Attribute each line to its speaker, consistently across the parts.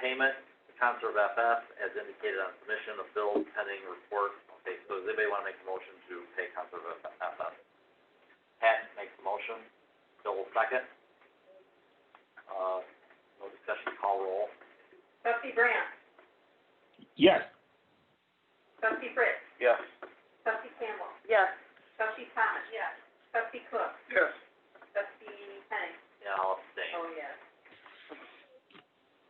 Speaker 1: payment, Concert of FF, as indicated on submission of bill pending report. Okay, so does anybody wanna make a motion to pay Concert of FF? Pat makes the motion, Bill will second. Uh, no discussion, call roll.
Speaker 2: Trustee Brandt?
Speaker 3: Yes.
Speaker 2: Trustee Fritz?
Speaker 1: Yes.
Speaker 2: Trustee Campbell?
Speaker 4: Yes.
Speaker 2: Trustee Thomas? Yes. Trustee Cook?
Speaker 3: Yes.
Speaker 2: Trustee Henning?
Speaker 1: Yeah, I'll abstain.
Speaker 2: Oh, yes.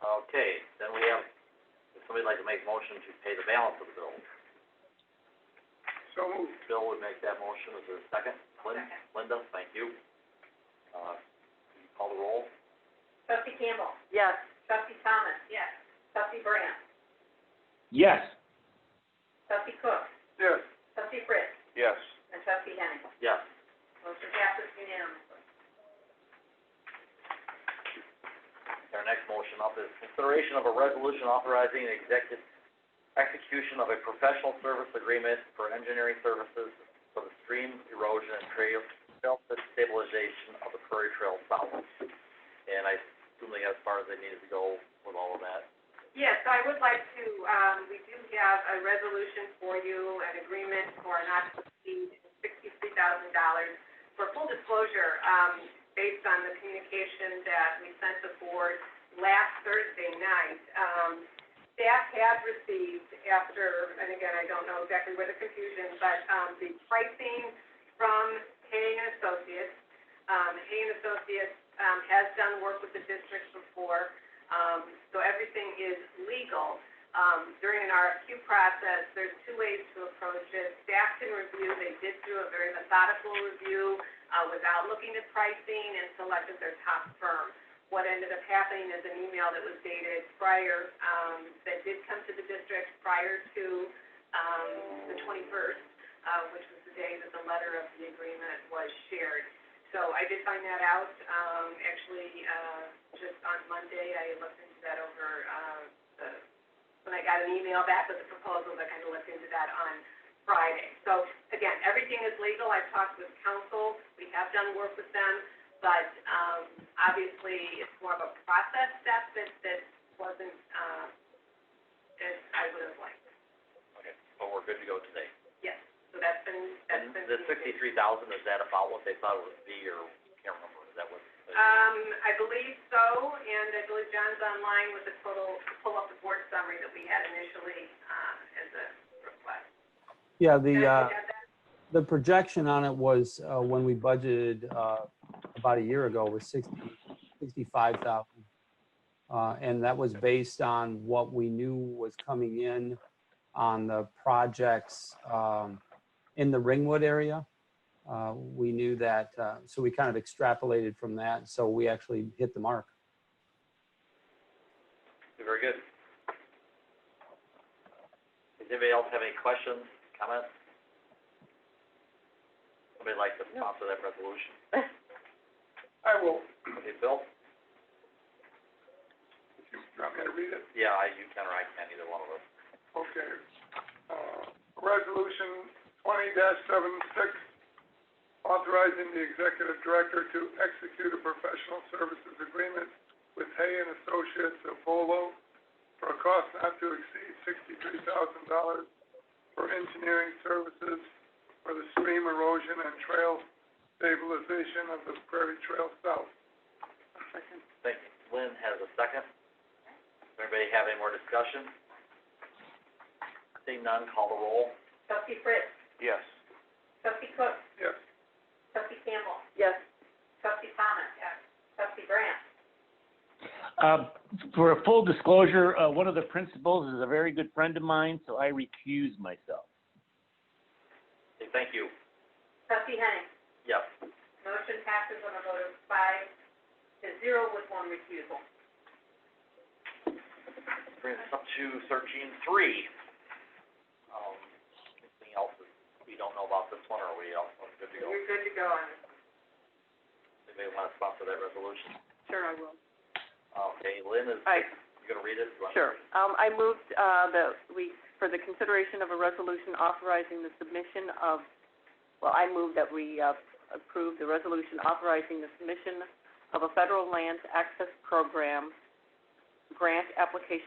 Speaker 1: Okay, then we have, if somebody'd like to make a motion to pay the balance of the bill.
Speaker 3: So moved.
Speaker 1: Bill would make that motion, is there a second? Lin-
Speaker 2: Second.
Speaker 1: Linda, thank you. Uh, can you call the roll?
Speaker 2: Trustee Campbell?
Speaker 4: Yes.
Speaker 2: Trustee Thomas? Yes. Trustee Brandt?
Speaker 3: Yes.
Speaker 2: Trustee Cook?
Speaker 3: Yes.
Speaker 2: Trustee Fritz?
Speaker 3: Yes.
Speaker 2: And Trustee Henning?
Speaker 1: Yes.
Speaker 2: Motion passes unanimously.
Speaker 1: Our next motion up is consideration of a resolution authorizing the executive execution of a professional service agreement for engineering services for the stream erosion and trail, trail stabilization of the Prairie Trail South. And I assume they got as far as they needed to go with all of that.
Speaker 2: Yes, I would like to, um, we do have a resolution for you, an agreement for not to exceed sixty-three thousand dollars. For full disclosure, um, based on the communication that we sent the board last Thursday night, um, staff had received after, and again, I don't know exactly where the confusion, but, um, the pricing from Hay and Associates. Um, Hay and Associates, um, has done work with the district before, um, so everything is legal. Um, during an RFQ process, there's two ways to approach it. Staff can review, they did do a very methodical review, uh, without looking at pricing and selected their top firm. What ended up happening is an email that was dated prior, um, that did come to the district prior to, um, the twenty-first, uh, which was the day that the letter of the agreement was shared. So I did find that out, um, actually, uh, just on Monday, I looked into that over, uh, the, when I got an email back with the proposals, I kind of looked into that on Friday. So again, everything is legal, I've talked with council, we have done work with them, but, um, obviously, it's more of a process step that, that wasn't, uh, as I would have liked.
Speaker 1: Okay, but we're good to go today.
Speaker 2: Yes, so that's been, that's
Speaker 1: And
Speaker 2: been.
Speaker 1: the sixty-three thousand, is that about what they thought it would be, or can't remember, is that what?
Speaker 2: Um, I believe so, and I believe John's online with the total, to pull up the board summary that we had initially, um, as a request.
Speaker 5: Yeah, the,
Speaker 2: Did I
Speaker 5: uh,
Speaker 2: get that?
Speaker 5: the projection on it was, uh, when we budgeted, uh, about a year ago was sixty, sixty-five thousand. Uh, and that was based on what we knew was coming in on the projects, um, in the Ringwood area. Uh, we knew that, uh, so we kind of extrapolated from that, so we actually hit the mark.
Speaker 1: Very good. Does anybody else have any questions, comments? Somebody like to sponsor that resolution?
Speaker 3: I will.
Speaker 1: Okay, Bill?
Speaker 3: You want me to read it?
Speaker 1: Yeah, I, you can or I can, either one of us.
Speaker 3: Okay. Uh, resolution twenty dash seven six, authorizing the executive director to execute a professional services agreement with Hay and Associates of Volo for a cost not to exceed sixty-three thousand dollars for engineering services for the stream erosion and trail stabilization of the Prairie Trail South.
Speaker 1: Thank you. Lynn has a second. Does Anybody have any more discussion? Seeing none, call the roll.
Speaker 2: Trustee Fritz,
Speaker 3: Yes.
Speaker 2: trustee Cook,
Speaker 3: Yes.
Speaker 2: trustee Campbell,
Speaker 4: Yes.
Speaker 2: trustee Thomas. Yes. Trustee Brandt.
Speaker 6: Uh, For a full disclosure, uh, one of the principals is a very good friend of mine, so I recuse myself.
Speaker 1: Okay, thank you.
Speaker 2: Trustee Henning.
Speaker 1: Yes.
Speaker 2: Motion passes on a vote of five to zero with one refusal.
Speaker 1: Brings us up to thirteen three. Um, anything else that we don't know about this one, or are we all all good to go?
Speaker 2: You're good to go on this.
Speaker 1: Anybody want to sponsor that resolution?
Speaker 4: Sure, I will.
Speaker 1: Okay, Lynn is,
Speaker 4: I,
Speaker 1: you gonna read it? You wanna-
Speaker 4: sure. Um, I moved, uh, that we, for the consideration of a resolution authorizing the submission of, well, I move that we, uh, approve the resolution authorizing the submission of a federal lands access program grant application